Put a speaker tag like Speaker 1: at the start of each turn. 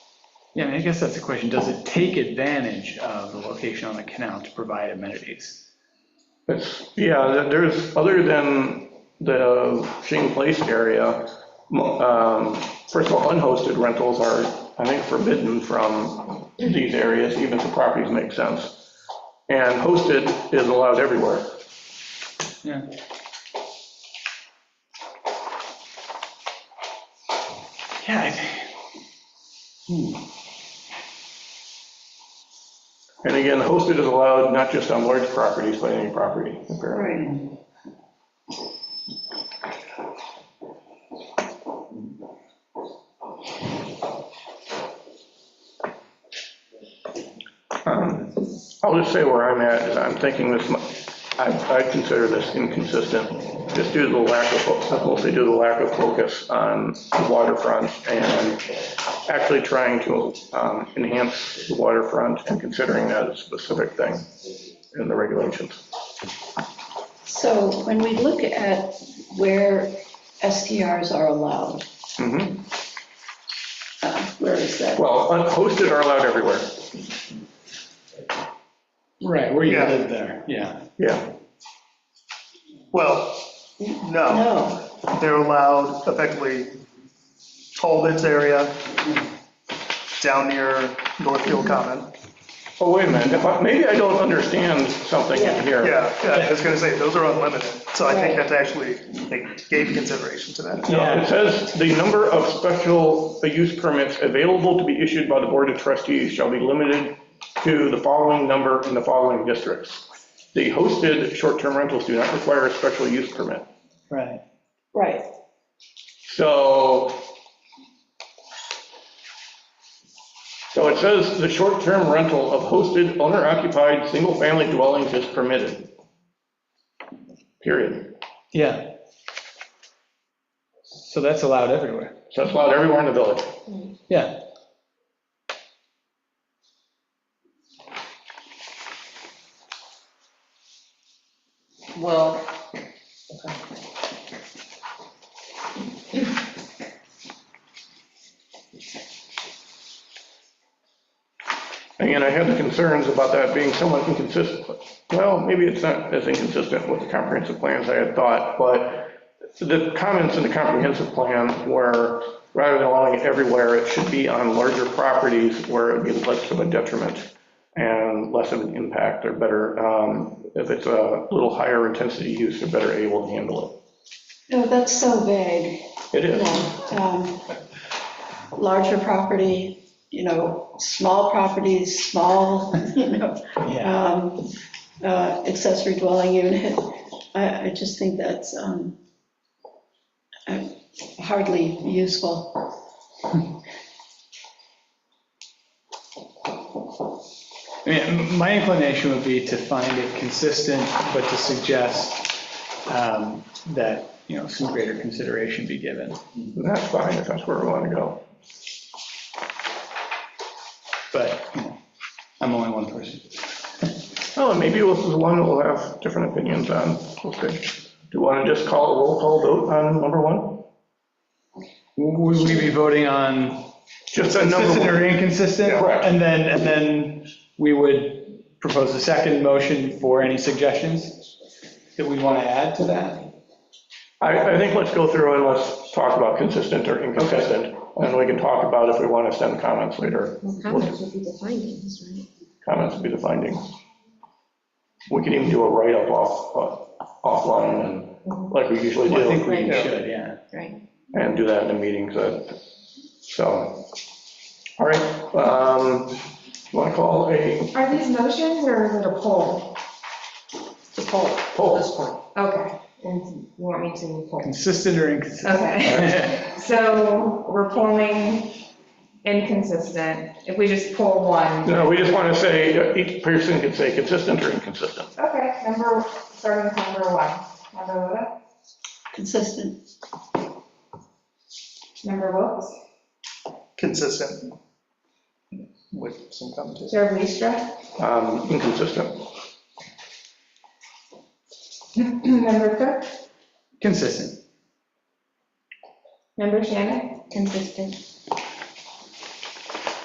Speaker 1: Yeah, I mean, I guess that's the question. Does it take advantage of the location on the canal to provide amenities?
Speaker 2: It's, yeah, there- there's, other than the Shane Place area, mo- um, first of all, unhosted rentals are, I think, forbidden from these areas, even if the properties make sense. And hosted is allowed everywhere.
Speaker 1: Yeah. Yeah. I think-
Speaker 2: And again, hosted is allowed not just on large properties, but any property, apparently.
Speaker 3: Right.
Speaker 2: I'll just say where I'm at, is I'm thinking this, mu- I, I consider this inconsistent, just due to the lack of, fo- mostly due to the lack of focus on the waterfront and actually trying to um, enhance the waterfront and considering that a specific thing in the regulations.
Speaker 3: So when we look at where STRs are allowed,
Speaker 2: Mhm.
Speaker 3: uh, where is that?
Speaker 2: Well, uh, hosted are allowed everywhere,
Speaker 1: Right, where you
Speaker 4: Yeah.
Speaker 1: live there, yeah.
Speaker 2: yeah.
Speaker 4: Well, no,
Speaker 3: No,
Speaker 4: they're allowed effectively toll bits area down near Northfield Common.
Speaker 2: Oh, wait a minute, if I- maybe I don't understand something in here.
Speaker 4: Yeah, yeah, I was gonna say, those are unlimited, so I think
Speaker 3: Right.
Speaker 4: that's actually, they gave consideration to that.
Speaker 2: No, Uh, it says the number of special uh, use permits available to be issued by the Board of Trustees shall be limited to the following number in the following districts. The hosted short-term rentals do not require a special use permit.
Speaker 1: Right.
Speaker 3: right,
Speaker 2: So, so it says the short-term rental of hosted owner-occupied single-family dwellings is permitted. Period.
Speaker 1: Yeah. So that's allowed everywhere.
Speaker 2: So that's allowed everywhere in the village.
Speaker 1: Yeah.
Speaker 5: Well,
Speaker 2: Again, I had the concerns about that being somewhat inconsistent. Well, maybe it's not as inconsistent with the comprehensive plans I had thought, but the comments in the comprehensive plan were, rather than allowing it everywhere, it should be on larger properties where it would be less of a detriment and less of an impact or better, um, if it's a little higher intensity use, they're better able to handle
Speaker 3: no, that's so vague.
Speaker 2: it. It is.
Speaker 3: No, um, larger property, you know, small properties, small, you know,
Speaker 1: Yeah.
Speaker 3: um, uh, accessory dwelling unit. I, I just think that's um, uh, hardly useful.
Speaker 1: I mean, my inclination would be to find it consistent, but to suggest um, that, you know, some greater consideration be given.
Speaker 2: And That's fine, if that's where we want to go.
Speaker 1: But, you know, I'm only one person.
Speaker 2: Oh, and maybe this is one that we'll have different opinions on. Okay. Do you want to just call a roll call vote on number one?
Speaker 1: Would we be voting on
Speaker 2: Just on number
Speaker 1: consistent or
Speaker 2: one?
Speaker 1: inconsistent?
Speaker 2: Yeah. Correct.
Speaker 1: And then, and then we would propose a second motion for any suggestions that we want to add to that?
Speaker 2: I, I think let's go through and let's talk about consistent or inconsistent, and we can talk about if we want to send comments later.
Speaker 5: well, comments would be the findings, right?
Speaker 2: Comments would be the findings. We can even do a write-up off, uh, offline, and like we usually
Speaker 1: I think
Speaker 2: do,
Speaker 1: we
Speaker 5: Right.
Speaker 1: should, yeah.
Speaker 5: Right.
Speaker 2: and do that in the meetings, uh, so. All right, um, you want to call a
Speaker 6: Are these motions or is it a poll? It's a poll at
Speaker 2: poll?
Speaker 6: this point. Okay, and you want me to poll?
Speaker 1: Consistent or inconsistent?
Speaker 6: Okay, so we're polling inconsistent. If we just pull one,
Speaker 2: No, we just want to say, uh, each person can say consistent or inconsistent.
Speaker 6: okay, number, starting with number one. Member Loda,
Speaker 3: Consistent,
Speaker 6: member Wilks,
Speaker 4: Consistent with some competition.
Speaker 6: Chair Bistra,
Speaker 2: Um, Inconsistent.
Speaker 6: member Cook,
Speaker 1: Consistent.
Speaker 6: member Shannon,
Speaker 3: consistent,